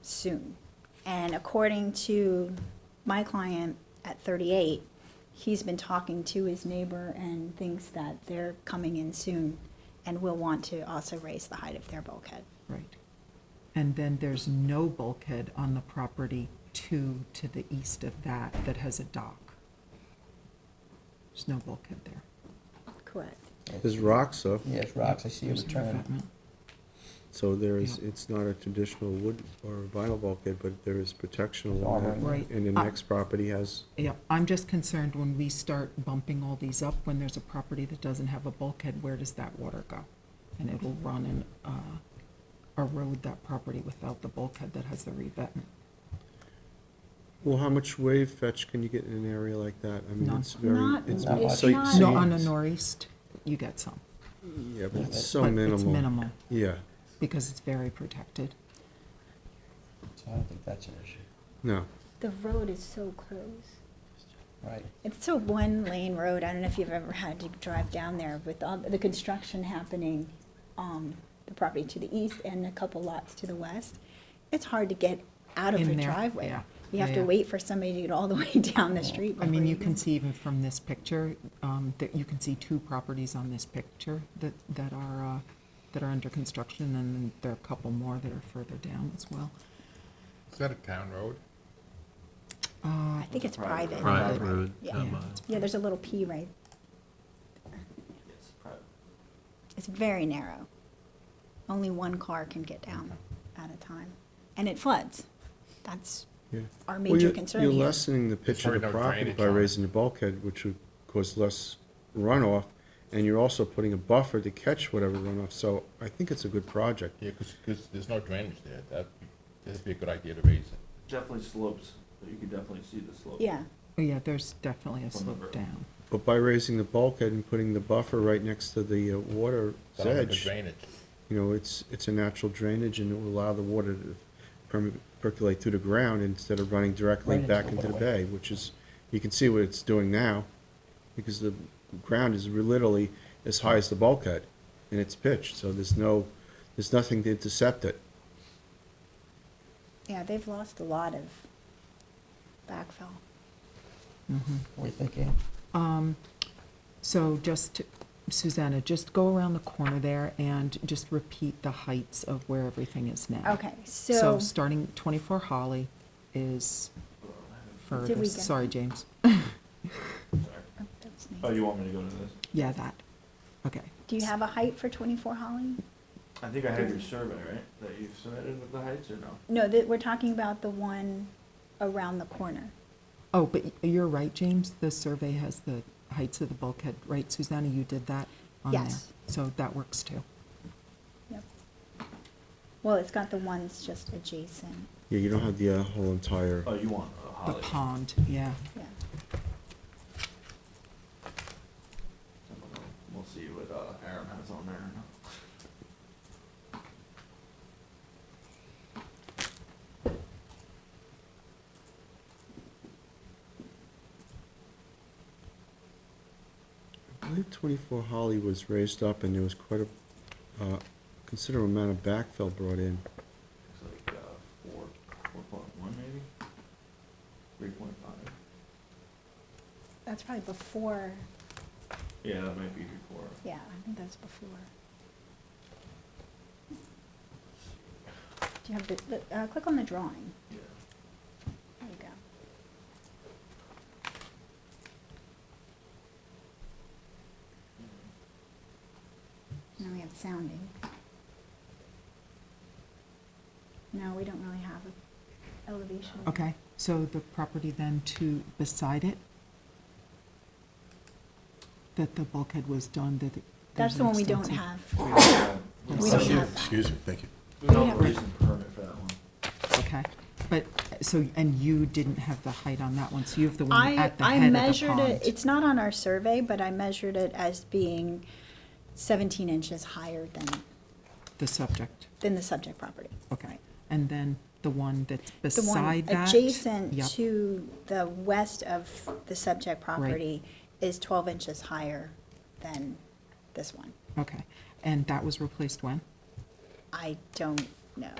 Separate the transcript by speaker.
Speaker 1: soon. And according to my client at 38, he's been talking to his neighbor and thinks that they're coming in soon and will want to also raise the height of their bulkhead.
Speaker 2: Right. And then there's no bulkhead on the property two to the east of that that has a dock. There's no bulkhead there.
Speaker 1: Correct.
Speaker 3: There's rocks, though,
Speaker 4: Yes, rocks, I see a
Speaker 2: There's no
Speaker 4: return.
Speaker 2: abutment.
Speaker 3: so there is,
Speaker 2: Yeah.
Speaker 3: it's not a traditional wood or vinyl bulkhead, but there is protection
Speaker 4: It's
Speaker 3: along
Speaker 4: all
Speaker 3: that.
Speaker 2: right.
Speaker 3: And the
Speaker 2: Right.
Speaker 3: next property has,
Speaker 2: Yeah, I'm just concerned when we start bumping all these up, when there's a property that doesn't have a bulkhead, where does that water go? And it'll run and, uh, erode that property without the bulkhead that has the revetment.
Speaker 3: well, how much wave fetch can you get in an area like that? I mean,
Speaker 2: None.
Speaker 3: it's very,
Speaker 1: Not-
Speaker 3: it's.
Speaker 4: Not
Speaker 3: so-
Speaker 4: much.
Speaker 3: so you-
Speaker 1: Not-
Speaker 2: No, on the northeast, you get some,
Speaker 3: Yeah, but it's so
Speaker 2: but
Speaker 3: minimal.
Speaker 2: it's minimal,
Speaker 3: Yeah,
Speaker 2: because it's very protected.
Speaker 4: So I don't think that's an issue.
Speaker 3: no,
Speaker 1: The road is so close.
Speaker 4: Right,
Speaker 1: It's a one lane road. I don't know if you've ever had to drive down there with all the construction happening, um, the property to the east and a couple lots to the west. It's hard to get out of
Speaker 2: In
Speaker 1: your
Speaker 2: there,
Speaker 1: driveway.
Speaker 2: yeah.
Speaker 1: You have
Speaker 2: Yeah,
Speaker 1: to
Speaker 2: yeah.
Speaker 1: wait for somebody to get all the way down the street.
Speaker 2: I mean,
Speaker 1: before
Speaker 2: you can see even from this picture, um, that you can see two properties on this picture that, that are, uh, that are under construction, and then there are a couple more that are further down as well.
Speaker 5: Is that a town road?
Speaker 1: Uh, I think it's private.
Speaker 2: Private.
Speaker 6: road,
Speaker 1: Yeah.
Speaker 6: not
Speaker 2: Yeah.
Speaker 6: mine.
Speaker 1: Yeah, there's a little P right. It's very narrow. Only one car can get down at a time. And it floods. That's
Speaker 3: yeah.
Speaker 1: our
Speaker 3: Well,
Speaker 1: major
Speaker 3: you're-
Speaker 1: concern
Speaker 3: You're
Speaker 1: here.
Speaker 3: lessening the pitch of
Speaker 5: probably
Speaker 3: the
Speaker 5: no
Speaker 3: property
Speaker 5: drainage
Speaker 3: by
Speaker 5: on it.
Speaker 3: raising the bulkhead, which would cause less runoff, and you're also putting a buffer to catch whatever runoff, so I think it's a good project.
Speaker 5: Yeah, because, there's no drainage there. That, that'd be a good idea to raise it.
Speaker 6: Definitely slopes, but you can definitely see the slope.
Speaker 1: Yeah,
Speaker 2: Oh, yeah, there's definitely a
Speaker 6: From the
Speaker 2: slope
Speaker 6: road.
Speaker 2: down.
Speaker 3: But by raising the bulkhead and putting the buffer right next to the uh, water's
Speaker 5: It's not a good
Speaker 3: edge,
Speaker 5: Drainage.
Speaker 3: you know, it's, it's a natural drainage and it will allow the water to perm- percolate through the ground instead of running directly
Speaker 4: Right
Speaker 3: back
Speaker 4: into
Speaker 3: into
Speaker 4: the
Speaker 3: the
Speaker 4: waterway.
Speaker 3: bay, which is, you can see what it's doing now, because the ground is literally as high as the bulkhead and it's pitched, so there's no, there's nothing to intercept it.
Speaker 1: yeah, they've lost a lot of backfill.
Speaker 4: what are you thinking?
Speaker 2: So just, Susanna, just go around the corner there and just repeat the heights of where everything is now.
Speaker 1: Okay,
Speaker 2: So
Speaker 1: so, oh,
Speaker 2: starting 24 Holly is
Speaker 1: Did we
Speaker 2: furthest,
Speaker 1: get
Speaker 2: sorry, James.
Speaker 1: Oh, that's me.
Speaker 6: Oh, you want me to go to this?
Speaker 2: Yeah, that, okay.
Speaker 1: do you have a height for 24 Holly?
Speaker 6: I think I have your survey, right, that you've submitted with the heights or no?
Speaker 1: No, that, we're talking about the one around the corner.
Speaker 2: Oh, but y- you're right, James, the survey has the heights of the bulkhead, right, Susanna, you did that on there?
Speaker 1: Yes.
Speaker 2: So that works too.
Speaker 1: Yep. Well, it's got the ones just adjacent,
Speaker 3: Yeah, you don't have the uh, whole entire,
Speaker 6: Oh, you want a
Speaker 2: The
Speaker 6: Holly?
Speaker 2: pond, yeah.
Speaker 1: yeah.
Speaker 6: I don't know. We'll see what uh, Aaron has on there or not.
Speaker 3: I believe twenty-four Holly was raised up and there was quite a, uh, considerable amount of backfill brought in.
Speaker 6: Looks like uh, four, four point one maybe? Three point five?
Speaker 1: That's probably before,
Speaker 6: Yeah, that might be before.
Speaker 1: yeah, I think that's before. Do you have the, the- uh, click on the drawing.
Speaker 6: Yeah.
Speaker 1: There you go. Now we have sounding. No, we don't really have a elevation.
Speaker 2: Okay, so the property then to beside it? That the bulkhead was done, that. it-
Speaker 1: That's
Speaker 2: there's
Speaker 1: the
Speaker 2: an
Speaker 1: one we don't
Speaker 2: extensive-
Speaker 1: have.
Speaker 6: We don't have,
Speaker 1: We don't have that.
Speaker 5: Excuse me, thank you.
Speaker 6: we don't
Speaker 1: We
Speaker 6: have
Speaker 1: have-
Speaker 6: a recent permit for that one.
Speaker 2: Okay, but, so, and you didn't have the height on that one, so you have the one
Speaker 1: I,
Speaker 2: at the
Speaker 1: I
Speaker 2: head of the
Speaker 1: measured
Speaker 2: pond.
Speaker 1: it, it's not on our survey, but I measured it as being seventeen inches higher than,
Speaker 2: The subject,
Speaker 1: than the subject property.
Speaker 2: okay.
Speaker 1: Right.
Speaker 2: And then the one that's
Speaker 1: The one
Speaker 2: beside that?
Speaker 1: adjacent
Speaker 2: Yep.
Speaker 1: to the west of the subject property is twelve inches higher than this one.
Speaker 2: Okay, and that was replaced when?
Speaker 1: I don't know.